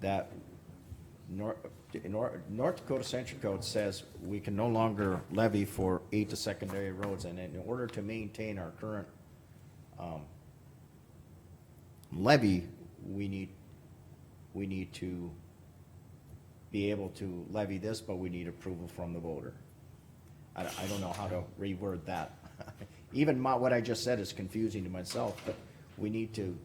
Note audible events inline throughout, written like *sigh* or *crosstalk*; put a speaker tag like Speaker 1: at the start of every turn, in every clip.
Speaker 1: that North, North Dakota Century Code says we can no longer levy for aid to secondary roads, and in order to maintain our current um, levy, we need, we need to be able to levy this, but we need approval from the voter. I, I don't know how to reword that. *laughs* Even my, what I just said is confusing to myself, but we need to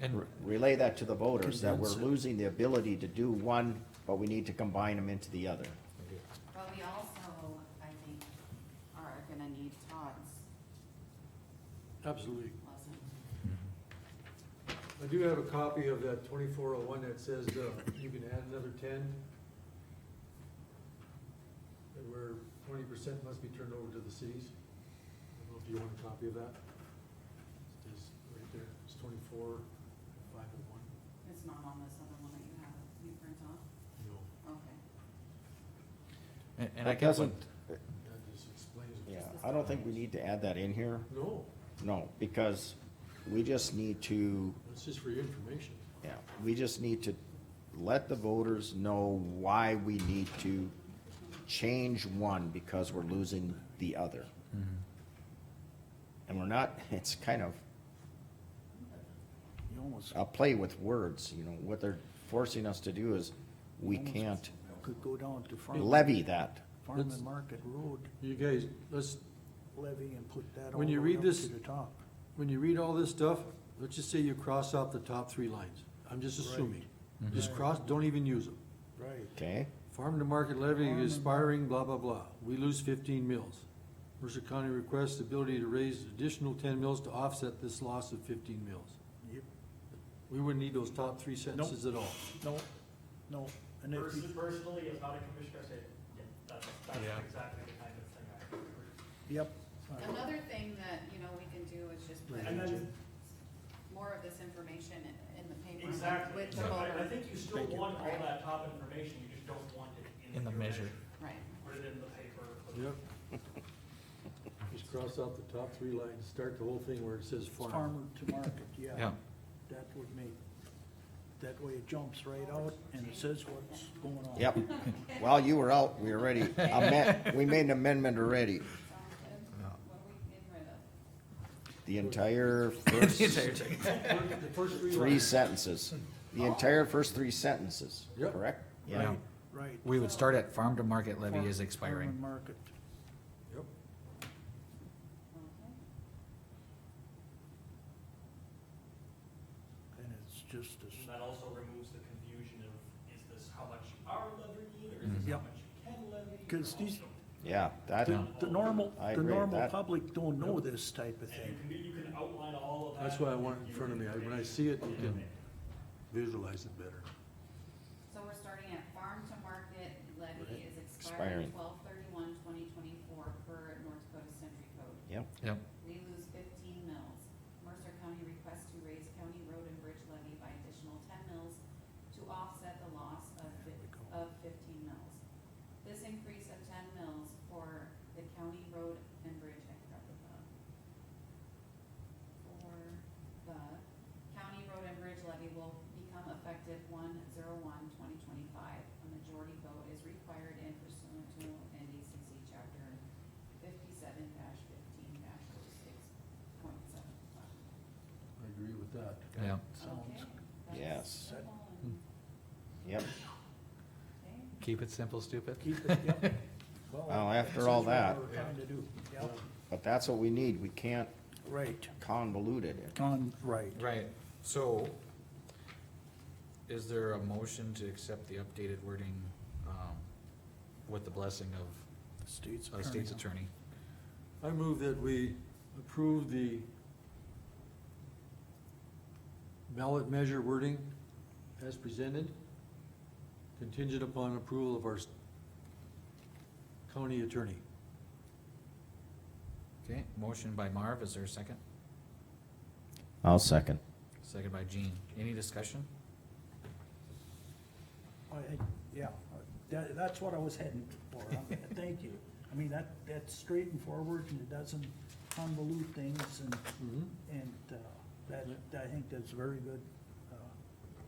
Speaker 2: And
Speaker 1: relay that to the voters, that we're
Speaker 2: Condense it.
Speaker 1: losing the ability to do one, but we need to combine them into the other.
Speaker 3: But we also, I think, are gonna need Todd's
Speaker 4: Absolutely.
Speaker 3: lesson.
Speaker 4: I do have a copy of that twenty-four oh one that says, uh, you can add another ten. and Where twenty percent must be turned over to the cities. I don't know if you want a copy of that. It's right there, it's twenty-four, five oh one,
Speaker 3: It's not on this other one that you have, you print off?
Speaker 4: you know,
Speaker 3: Okay.
Speaker 2: And and I
Speaker 1: That
Speaker 2: guess,
Speaker 1: doesn't,
Speaker 4: that just explains it.
Speaker 1: yeah, I don't think we need to add that in here,
Speaker 4: No,
Speaker 1: no, because we just need to,
Speaker 4: it's just for your information.
Speaker 1: yeah, we just need to let the voters know why we need to change one because we're losing the other. And we're not, *laughs* it's kind of
Speaker 5: You almost
Speaker 1: a play with words, you know, what they're forcing us to do is, we can't
Speaker 5: could go down to Farm,
Speaker 1: levy that.
Speaker 5: Farm and Market Road
Speaker 4: You guys, let's,
Speaker 5: levy and put that all
Speaker 4: When
Speaker 5: the
Speaker 4: you
Speaker 5: way
Speaker 4: read
Speaker 5: up
Speaker 4: this-
Speaker 5: to the top.
Speaker 4: when you read all this stuff, let's just say you cross out the top three lines. I'm just assuming. Just cross, don't even use them.
Speaker 5: Right.
Speaker 1: Okay,
Speaker 4: Farm to market levy
Speaker 5: Farm to-
Speaker 4: expiring, blah, blah, blah. We lose fifteen mills. Mercer County requests the ability to raise additional ten mills to offset this loss of fifteen mills.
Speaker 5: Yep,
Speaker 4: We wouldn't need those top three sentences at all.
Speaker 5: no, no, and if
Speaker 6: Pers-
Speaker 5: you,
Speaker 6: Personally, as not a commissioner, I say, yeah, that's,
Speaker 2: Yeah.
Speaker 6: that's exactly the kind of thing I prefer.
Speaker 5: yep. uh,
Speaker 3: Another thing that, you know, we can do is just put
Speaker 6: And then,
Speaker 3: more of this information in- in the paper
Speaker 6: exactly,
Speaker 3: with the
Speaker 6: So I, I
Speaker 3: voter.
Speaker 6: think you still want all that top information, you just don't want it in.
Speaker 2: In the
Speaker 6: your
Speaker 2: measure.
Speaker 3: Right.
Speaker 6: Put it in the paper. put it-
Speaker 4: Yep. *laughs* Just cross out the top three lines, start the whole thing where it says farm.
Speaker 5: Farmer to market, yeah,
Speaker 2: yeah,
Speaker 5: that would make, that way it jumps right out and it says what's going on.
Speaker 1: yep. While you were out, we already, amend- we made an amendment already.
Speaker 3: Sounds good? What are we getting rid of?
Speaker 1: The entire
Speaker 2: *laughs*
Speaker 1: first
Speaker 4: *laughs* The first three
Speaker 1: three
Speaker 4: lines.
Speaker 1: sentences, the entire first three sentences,
Speaker 4: Yep.
Speaker 1: correct?
Speaker 2: yeah.
Speaker 5: Right, right.
Speaker 2: We would start at farm to market levy is
Speaker 5: Farm- Farm
Speaker 2: expiring.
Speaker 5: and Market,
Speaker 4: Yep.
Speaker 3: Okay.
Speaker 5: and it's just
Speaker 6: And
Speaker 5: as,
Speaker 6: that also removes the confusion of, is this how much you are levying, or
Speaker 4: Mm-hmm.
Speaker 6: is this
Speaker 5: Yep.
Speaker 6: how much you can levy? or
Speaker 5: 'Cause these-
Speaker 6: also-
Speaker 1: Yeah, that,
Speaker 5: the, the normal,
Speaker 1: I
Speaker 5: the
Speaker 1: agree with
Speaker 5: normal
Speaker 1: that.
Speaker 5: public don't know this type of
Speaker 6: And you
Speaker 5: thing.
Speaker 6: can, do- you can outline all of that.
Speaker 4: That's why I want it in front of me. I- When I see it, you can visualize it better.
Speaker 3: So we're starting at farm to market levy is
Speaker 1: Expiring.
Speaker 3: expiring twelve thirty-one, twenty twenty-four per North Dakota Century Code.
Speaker 1: yep,
Speaker 2: Yep,
Speaker 3: We lose fifteen mills. Mercer County requests to raise county road and bridge levy by additional ten mills to offset the loss of fif- of fifteen mills. This increase of ten mills for the county road and bridge, I forgot the the. For the county road and bridge levy will become effective one zero one twenty twenty-five. A majority vote is required in pursuant to NDCC chapter fifty-seven fifteen oh six point seven five.
Speaker 4: I agree with that.
Speaker 2: yeah.
Speaker 5: Sounds,
Speaker 1: Yes.
Speaker 3: Okay,
Speaker 1: yep.
Speaker 2: Keep it simple, stupid.
Speaker 5: keep it, *laughs* yep.
Speaker 1: Well, after
Speaker 5: this
Speaker 1: all
Speaker 5: is what
Speaker 1: that-
Speaker 5: we're trying to do, yep.
Speaker 1: But that's what we need, we can't
Speaker 5: Right,
Speaker 1: convolute it.
Speaker 5: on, right.
Speaker 2: Right, so is there a motion to accept the updated wording, um, with the blessing of
Speaker 5: State's
Speaker 2: uh, state's attorney?
Speaker 4: I move that we approve the ballot measure wording as presented, contingent upon approval of our s- county attorney.
Speaker 2: Okay, motion by Marv, is there a second?
Speaker 1: I'll second.
Speaker 2: Second by Jean. Any discussion?
Speaker 5: I, I- yeah, that, that's what I was heading for, Uh, *laughs* thank you. I mean, that, that's straight and forward, and it doesn't convolute things, and,
Speaker 4: Mm-hmm.
Speaker 5: and, uh, that,
Speaker 4: Yeah.
Speaker 5: I think that's very good. uh,